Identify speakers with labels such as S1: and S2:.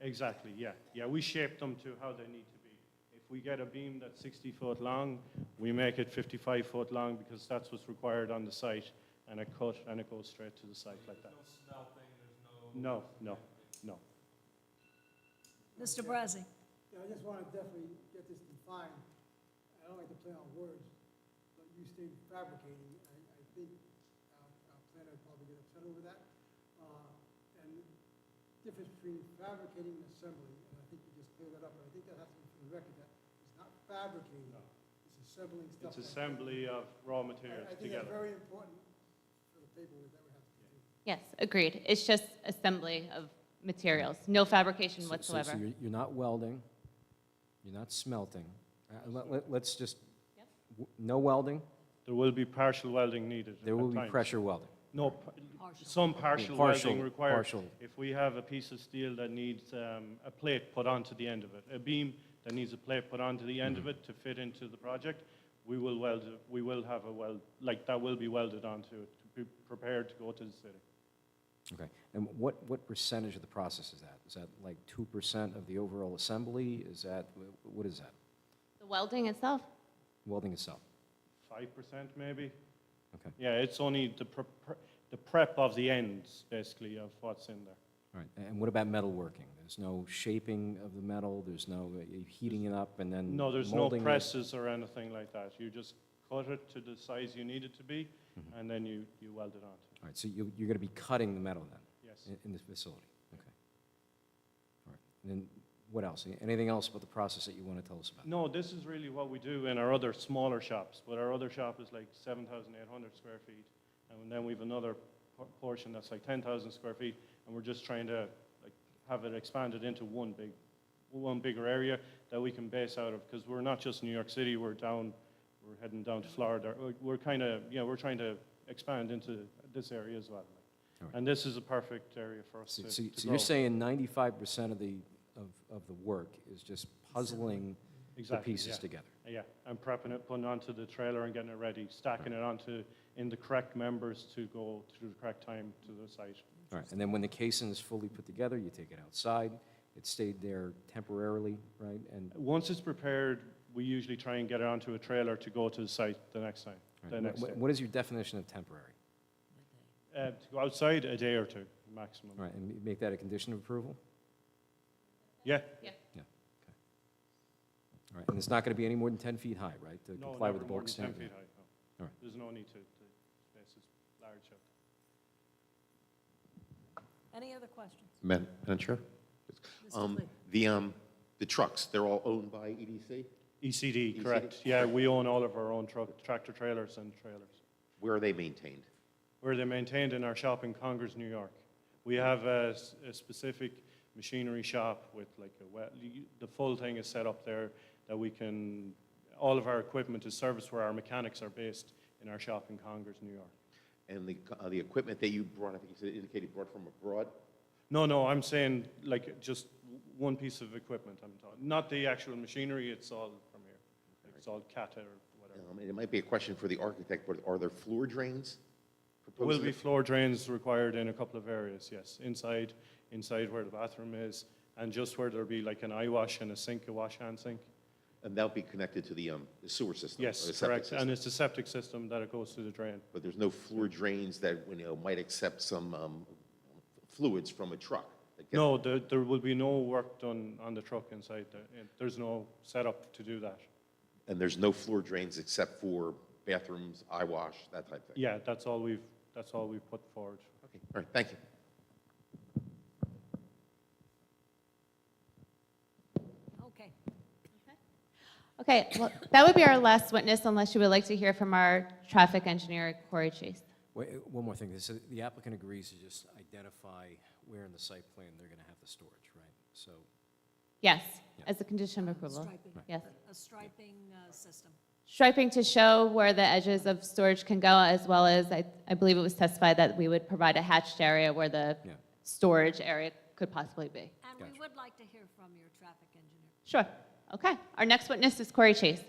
S1: Exactly, yeah. Yeah, we shape them to how they need to be. If we get a beam that's 60 foot long, we make it 55 foot long because that's what's required on the site, and it cut and it goes straight to the site like that. No, no, no.
S2: Mr. Brazzi?
S3: Yeah, I just want to definitely get this defined. I don't like to play on words, but you stated fabricating. I, I think our, our planner would probably get upset over that. Uh, And the difference between fabricating and assembly, and I think you just cleared that up, but I think that has to be for the record, that it's not fabricating,
S1: No.
S3: it's assembling stuff.
S1: It's
S3: like-
S1: assembly of raw
S3: I-
S1: materials
S3: I think that's
S1: together.
S3: very important for the paperwork that we have to do.
S4: Yes, agreed. It's just assembly of materials, no fabrication
S5: So- so- so
S4: whatsoever.
S5: you're- You're not welding, you're not smelting. Uh, Let, let, let's just,
S4: Yep.
S5: w- no welding,
S1: There will be partial welding needed.
S5: there
S1: at
S5: will be
S1: times.
S5: pressure welding.
S1: No, p- some partial
S5: partial-
S1: welding required.
S5: partial.
S1: If we have a piece of steel that needs um, a plate put onto the end of it, a beam that needs a plate put onto the
S5: Mm-hmm.
S1: end of it to fit into the project, we will weld, it- we will have a weld, like, that will be welded onto it, to be prepared to go to the city.
S5: Okay, and what, what percentage of the process is that? Is that like 2% of the overall assembly? Is that, wh- what is that?
S4: The welding itself,
S5: Welding itself?
S1: Five percent, maybe?
S5: Okay,
S1: Yeah, it's only the pre- pre- the prep of the ends, basically, of what's in there.
S5: all right. And what about metalworking? There's no shaping of the metal, there's no uh, heating it up and then
S1: No, there's no
S5: Mm, molding it?
S1: presses or anything like that. You just cut it to the size you need it to be,
S5: Mm-hmm.
S1: and then you, you weld it onto it.
S5: All right, so you, you're going to be cutting the metal then?
S1: Yes.
S5: In, in the facility, okay. All right, and then what else? Anything else about the process that you want to tell us about?
S1: No, this is really what we do in our other smaller shops, but our other shop is like 7,800 square feet, and then we have another por- portion that's like 10,000 square feet, and we're just trying to like have it expanded into one big, one bigger area that we can base out of, because we're not just New York City, we're down, we're heading down to Florida. We're- We're kind of, you know, we're trying to expand into this area as well.
S5: All right.
S1: And this is a perfect area for us
S5: So,
S1: to
S5: so
S1: to
S5: so
S1: grow.
S5: you're saying ninety-five percent of the, of, of the work is just puzzling the
S1: Exactly,
S5: pieces
S1: yeah.
S5: together?
S1: Yeah, and prepping it, putting it onto the trailer and getting it ready, stacking it onto, in the correct members to go to the correct time to the site.
S5: All right, and then when the casing is fully put together, you take it outside, it stayed there temporarily, right? And
S1: Once it's prepared, we usually try and get it onto a trailer to go to the site the next time,
S5: all
S1: the
S5: right,
S1: next
S5: wh-
S1: day.
S5: what is your definition of temporary?
S1: Uh, to go outside, a day or two, maximum.
S5: All right, and make that a condition of approval?
S1: Yeah,
S5: All right, and it's not going to be any more than ten feet high, right? To
S1: no,
S5: comply
S1: never
S5: with the
S1: more
S5: bulk
S1: than ten
S5: standard?
S1: feet high, no.
S5: All right.
S1: There's no need to, the space is large. so.
S2: Any other questions?
S6: Madam Madam Chair?
S2: Mr.
S6: Um,
S2: Flynn?
S6: The, um, the trucks, they're all owned by E EDC?
S1: ECD,
S6: ECD,
S1: E correct. Yeah, we own all of our own truck, tractor trailers and trailers.
S6: Where are they maintained?
S1: where they're maintained in our shop in Congers, New York. We have a, s- a specific machinery shop with like a well, you- the full thing is set up there that we can, all of our equipment is serviced where our mechanics are based in our shop in Congers, New York.
S6: And the, uh, the equipment that you brought, I think you said indicated brought from abroad?
S1: No, no, I'm saying like just w- one piece of equipment I'm talking, not the actual machinery, it's all from here. Like, It's all CATA or whatever.
S6: Um, And it might be a question for the architect, but are there floor drains?
S1: There will
S6: proposed?
S1: be floor drains required in a couple of areas, yes. Inside, inside where the bathroom is, and just where there'll be like an eye wash and a sink, a wash hand sink.
S6: And that'll be connected to the um, the sewer system? or
S1: Yes,
S6: the Oh, septic
S1: correct.
S6: system.
S1: And it's a septic system that it goes to the drain.
S6: But there's no floor drains that, you know, might accept some um, fluids from a truck? that get-
S1: No, there, there will be no work done on the truck inside. there. Eh, There's no setup to do that.
S6: And there's no floor drains except for bathrooms, eye wash, that type of thing?
S1: Yeah, that's all we've, that's all we've put forward.
S6: Okay, all right, thank you.
S2: Okay.
S4: Okay, well, that would be our last witness unless you would like to hear from our traffic engineer, Corey Chase.
S5: Wait, uh, one more thing, This is- the applicant agrees to just identify where in the site plan they're going to have the storage, right? So,
S4: Yes, as a condition of approval.
S2: Striping.
S4: Yes.
S2: A striping uh, system.
S4: Striping to show where the edges of storage can go, as well as, I, I believe it was testified that we would provide a hatched area where the
S5: yeah.
S4: storage area could possibly be.
S2: And we
S5: Gotcha.
S2: would like to hear from your traffic engineer.
S4: Sure, okay. Our next witness is Corey Chase.